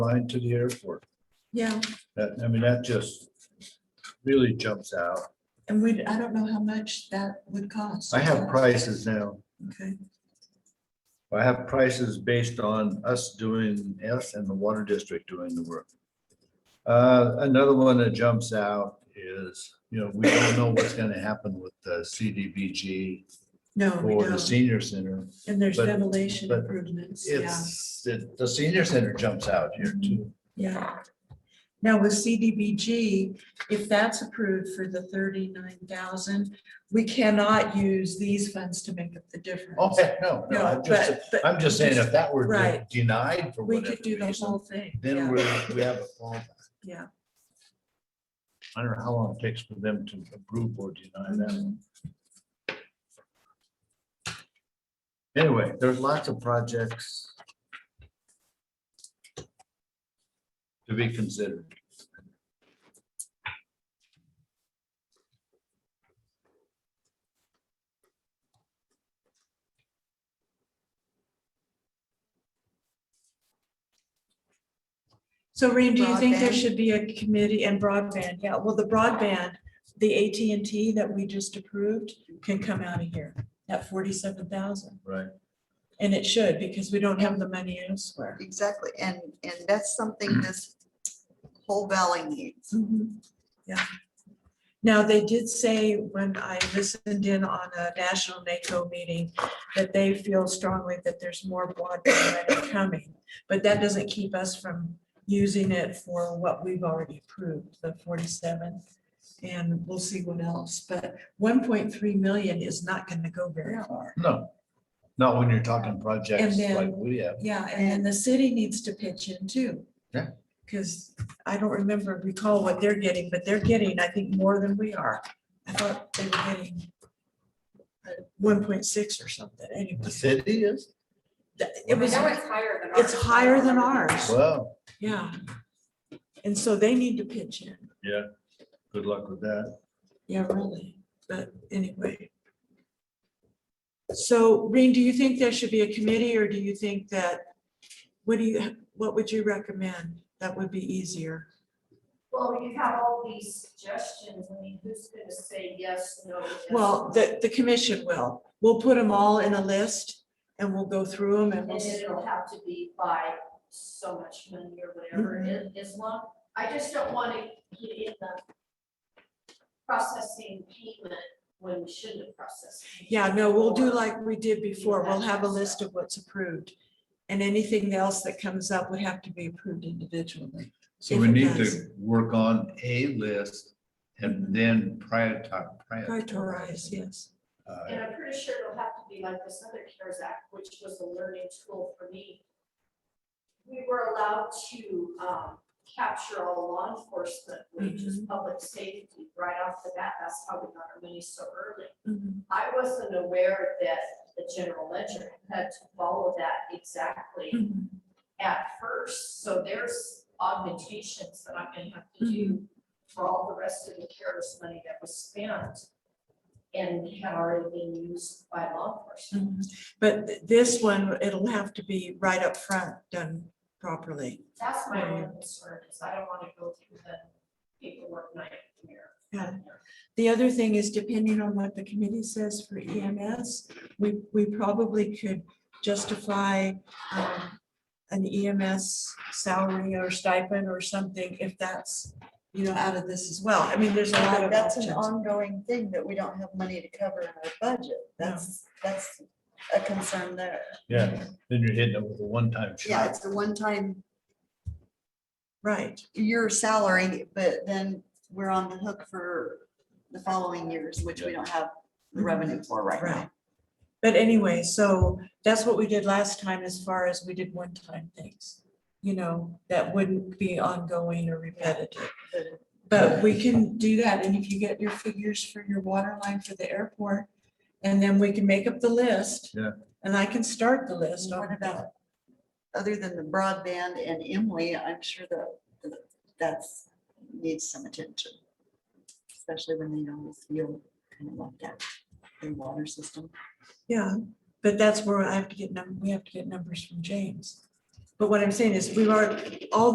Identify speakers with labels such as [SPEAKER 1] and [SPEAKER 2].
[SPEAKER 1] line to the airport.
[SPEAKER 2] Yeah,
[SPEAKER 1] That, I mean, that just really jumps out.
[SPEAKER 2] and we, I don't know how much that would cost.
[SPEAKER 1] I have prices now.
[SPEAKER 2] Okay,
[SPEAKER 1] I have prices based on us doing us and the water district doing the work. Uh, Another one that jumps out is, you know, we don't know what's going to happen with the CDBG
[SPEAKER 2] no, Oh, we
[SPEAKER 1] or the
[SPEAKER 2] don't.
[SPEAKER 1] senior center.
[SPEAKER 2] And there's
[SPEAKER 1] but-
[SPEAKER 2] ventilation
[SPEAKER 1] but
[SPEAKER 2] improvements, yeah, Mm-hmm.
[SPEAKER 1] It's, it- the senior center jumps out here too.
[SPEAKER 2] yeah. Now with CDBG, if that's approved for the thirty-nine thousand, we cannot use these funds to make up the difference.
[SPEAKER 1] Oh, heck, no, no,
[SPEAKER 2] No,
[SPEAKER 1] I'm just,
[SPEAKER 2] but, but
[SPEAKER 1] I'm just saying if that were
[SPEAKER 2] Right.
[SPEAKER 1] denied for
[SPEAKER 2] we
[SPEAKER 1] whatever
[SPEAKER 2] could do the
[SPEAKER 1] reason,
[SPEAKER 2] whole thing,
[SPEAKER 1] then
[SPEAKER 2] yeah,
[SPEAKER 1] we're, we have a fallback.
[SPEAKER 2] yeah.
[SPEAKER 1] I don't know how long it takes for them to approve or deny that.
[SPEAKER 2] Mhm.
[SPEAKER 1] Anyway, there's lots of projects to be considered.
[SPEAKER 2] So Reen, do you think there
[SPEAKER 3] Broadband.
[SPEAKER 2] should be a committee and broadband? Yeah, well, the broadband, the AT&T that we just approved can come out of here at forty-seven thousand.
[SPEAKER 1] Right.
[SPEAKER 2] And it should because we don't have the money elsewhere.
[SPEAKER 3] Exactly, and, and that's something this whole valley needs.
[SPEAKER 2] Mm-hmm. Yeah. Now, they did say when I listened in on a national NACO meeting that they feel strongly that there's more broadband money coming. But that doesn't keep us from using it for what we've already approved, the forty-seven. And we'll see what else, but one point three million is not gonna go very far.
[SPEAKER 1] No, not when you're talking projects
[SPEAKER 2] And then-
[SPEAKER 1] like we have.
[SPEAKER 2] Yeah, and then the city needs to pitch in too.
[SPEAKER 1] Yeah.
[SPEAKER 2] Because I don't remember, recall what they're getting, but they're getting, I think, more than we are. I thought they were getting uh, one point six or something, anyway.
[SPEAKER 1] The city is,
[SPEAKER 2] th- It was,
[SPEAKER 4] I know it's higher than ours.
[SPEAKER 2] it's higher than ours,
[SPEAKER 1] well,
[SPEAKER 2] yeah. And so they need to pitch in,
[SPEAKER 1] yeah, good luck with that.
[SPEAKER 2] yeah, really, but anyway. So, Reen, do you think there should be a committee, or do you think that, what do you, what would you recommend that would be easier?
[SPEAKER 4] Well, you have all these suggestions, I mean, who's gonna say yes, no? yes?
[SPEAKER 2] Well, the, the commission will. We'll put them all in a list and we'll go through them and
[SPEAKER 4] And
[SPEAKER 2] we'll.
[SPEAKER 4] then
[SPEAKER 2] s-
[SPEAKER 4] it'll have to be by so much money or whatever
[SPEAKER 2] Mm-hmm.
[SPEAKER 4] it is long. I just don't wanna get in the processing payment when we shouldn't have processed. payment.
[SPEAKER 2] Yeah, no, we'll do
[SPEAKER 4] Or-
[SPEAKER 2] like we did before. We'll have a list of what's approved. And anything else that comes up would have to be approved individually.
[SPEAKER 1] So
[SPEAKER 2] If
[SPEAKER 1] we
[SPEAKER 2] it
[SPEAKER 1] need
[SPEAKER 2] does.
[SPEAKER 1] to work on a list and then prior
[SPEAKER 2] Prioritize, yes.
[SPEAKER 1] Uh,
[SPEAKER 4] And I'm pretty sure it'll have to be like this other CARES Act, which was a learning tool for me. We were allowed to um, capture all law enforcement, which is public safety, right off the bat. That's how we got our money so early.
[SPEAKER 2] Mhm.
[SPEAKER 4] I wasn't aware that the general ledger had to follow that exactly
[SPEAKER 2] Mhm.
[SPEAKER 4] at first. So there's augmentations that I'm gonna have to do for all the rest of the CARES money that was spent and had already been used by law enforcement.
[SPEAKER 2] Mhm. But th- this one, it'll have to be right up front done properly.
[SPEAKER 4] That's my
[SPEAKER 2] Yeah.
[SPEAKER 4] only concern, is I don't want to go through the paperwork nightmare.
[SPEAKER 2] Yeah. The other thing is depending on what the committee says for EMS, we, we probably could justify um, an EMS salary or stipend or something if that's, you know, out of this as well. I mean, there's a lot of
[SPEAKER 3] That's an
[SPEAKER 2] options.
[SPEAKER 3] ongoing thing that we don't have money to cover in our budget. That's, that's a concern there.
[SPEAKER 1] Yeah, then you're hitting it with a one-time
[SPEAKER 3] Yeah,
[SPEAKER 1] shot.
[SPEAKER 3] it's a one-time,
[SPEAKER 2] Right,
[SPEAKER 3] year salary, but then we're on the hook for the following years, which we don't have the revenue for right
[SPEAKER 2] Mm-hmm. right.
[SPEAKER 3] now.
[SPEAKER 2] But anyway, so that's what we did last time as far as we did one-time things, you know, that wouldn't be ongoing or repetitive. But we can do that, and if you get your figures for your water line for the airport, and then we can make up the list.
[SPEAKER 1] Yeah.
[SPEAKER 2] And I can start the list.
[SPEAKER 3] What about, other than the broadband and Emily, I'm sure that, that- that's, needs some attention. Especially when they always feel kind of left out in water system.
[SPEAKER 2] Yeah, but that's where I have to get, num- we have to get numbers from James. But what I'm saying is, we've already, all